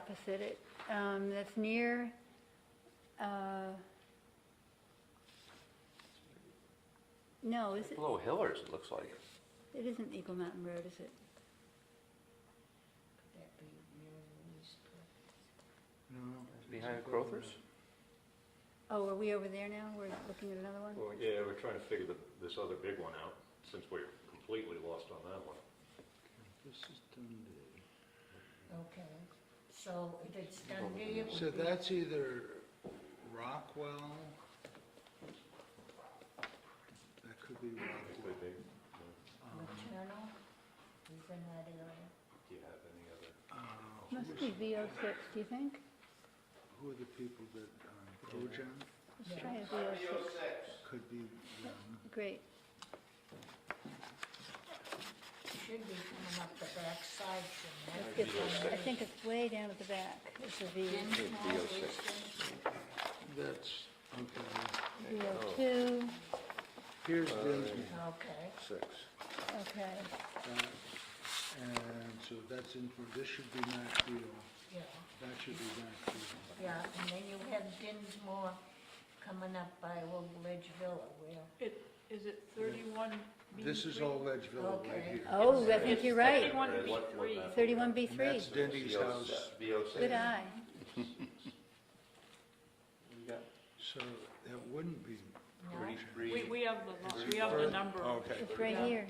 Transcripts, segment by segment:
opposite it, um, that's near, uh, no, is it, Below Hillers, it looks like. it isn't Eagle Mountain Road, is it? Behind Crothers? Oh, are we over there now? We're looking at another one? Well, yeah, we're trying to figure the, this other big one out, since we're completely lost on that one. This is Dundee. Okay, so if it's Dundee, it So would be, that's either Rockwell. That could be It Rockwell. could be. maternal, is in that area. Do you have any other? Uh, Must be VO six, do you think? Who are the people that, um, Kojam Let's try a VO six, could be, um, great. Should be coming up the backside Let's from get, I think it's way down at the back, it's a V, there. that's, okay. VO oh two, Here's Dinsmore, Okay, Six. okay, that- Uh, and so that's in, for- this should be Maxfield, yeah, that should be Maxfield. yeah, and then you have Dinsmore coming up by Old Ledge Villa, where, It, is it thirty-one B This is three? all Ledgeville right Okay. here. oh, I think It's you're right, Thirty-one Right, B what- what three. map? thirty-one B And three, that's Denny's house, VO good eye. so that wouldn't be no? We, we have the, lo- we have the number. Okay. It's right Yeah. here,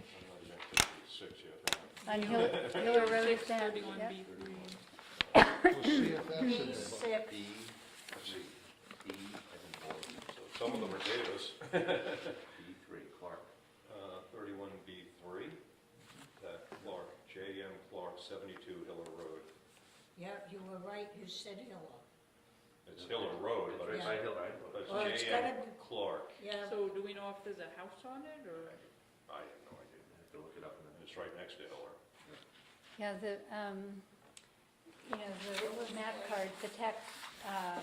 Six, yeah. on Hill, Hiller Road is Six down, thirty-one yep. B three. We'll see if that's in B there. six, B, let's see, B as in boy, so Some of them are Davis. B three, Clark. Uh, Thirty-one B three, that Clark, J M Clark, seventy-two Hiller Road. yeah, you were right, you said Hilla, It's Hiller Road, but Right it's, by Hiller. Well, but it's it's J M gotta be- Clark. yeah, So do we know if there's a house on it, or? I have no idea. Have to look it up in It's right next to Hiller. Yeah, the, um, you know, the map cards, the tax, uh,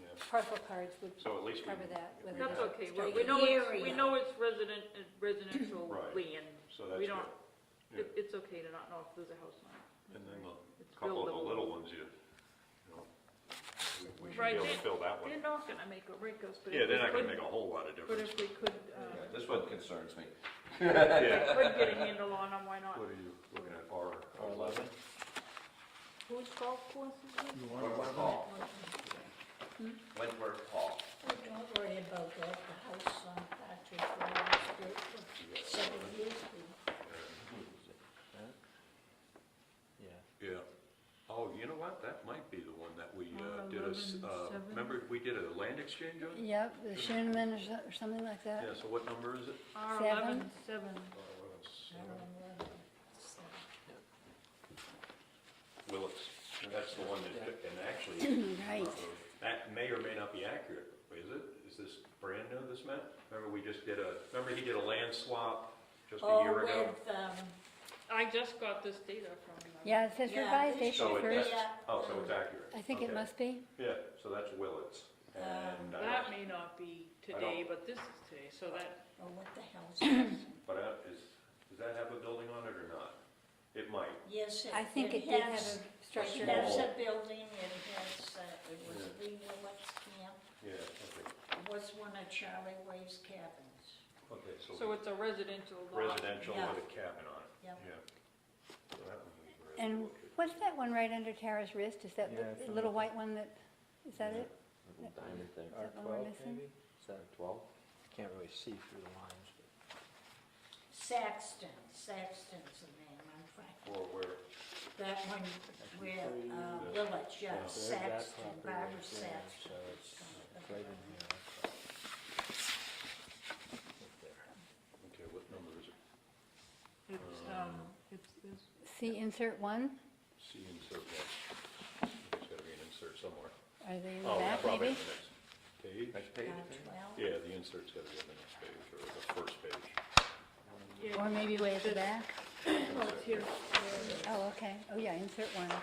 Yeah. parcel cards would So at least we. cover that with That's That's a- okay, Well, we know it's, we area. know it's resident, uh, residential Right. land. So that's We don't, good. it, it's okay to not know if there's a house on it. And then It's a couple of the buildable. little ones, you, you know, we- we should be Right, able to they- fill that one. They're not gonna make or break us, but Yeah, if we they're not gonna make a could, whole lot of but difference. if we could, uh, This one concerns me. Yeah. could get a handle on them, why not? What are you looking at, R eleven? Whose golf course is it? You want to- Wentworth Hall. Wentworth Hall. Oh, don't worry about that, the house on Patrick Road was built for seven years ago. Yeah. Oh, you know what, that might be the one that we uh, R did a, s- 11, uh, seven. remember, we did a land exchange on? Yep, the Shinneman or so- or something like that. Yeah, so what number is it? R Seven. eleven seven. I don't know. So, Willis, that's the one that, and actually, uh, Right, that may or may not be accurate, is it? Is this brand new, this map? Remember, we just did a, remember he did a land swap just a Oh, year ago? with, um, I just got this data from them. yeah, it says Yeah, revised they issue So it, first. that's, Yeah. oh, so it's accurate? I think it Okay. must be. Yeah, so that's Willits, and, uh, I That may not be I don't- today, but this is today, so that, oh, what the hell's that? but I- is, does that have a building on it or not? It might, Yes, it I think it did have has, a it structure. has a building, it has, uh, it was the Willets camp, yeah, okay, it was one of Charlie Way's cabins. okay, so so it's a residential lot. residential Yeah. with a cabin on it, Yeah. yeah. So that one we were able to And look at. what's that one right under Tara's wrist? Is that the little white one that, is that it? Little diamond thing. Is that one we're missing? Is that a twelve? I can't really see through the lines, but. Saxton, Saxton's the name, I'm trying, Or where, that one where, uh, the- Willets, yeah, yeah. So there's that Saxton, property Barbara right there, Saxton. So it's it's right in here. Right there. okay, what number is it? It's, um, it's, it's, See insert one? C insert one. There's gotta be an insert somewhere. Are they in the Oh, yeah, back probably maybe? on the next Page? Next page, Uh, twelve. Yeah, the insert's gotta be on the next page, or the first page. Or yeah, maybe way at the back? oh, it's here. Oh, okay. Oh, yeah, insert one. Um,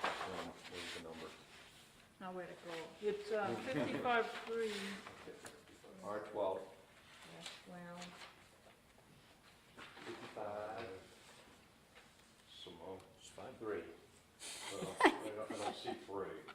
There's the number. Now where to go? It's, um, fifty-five three, R twelve, Yeah, Well, fifty-five, Simone. three. Well, I don't, I don't see three.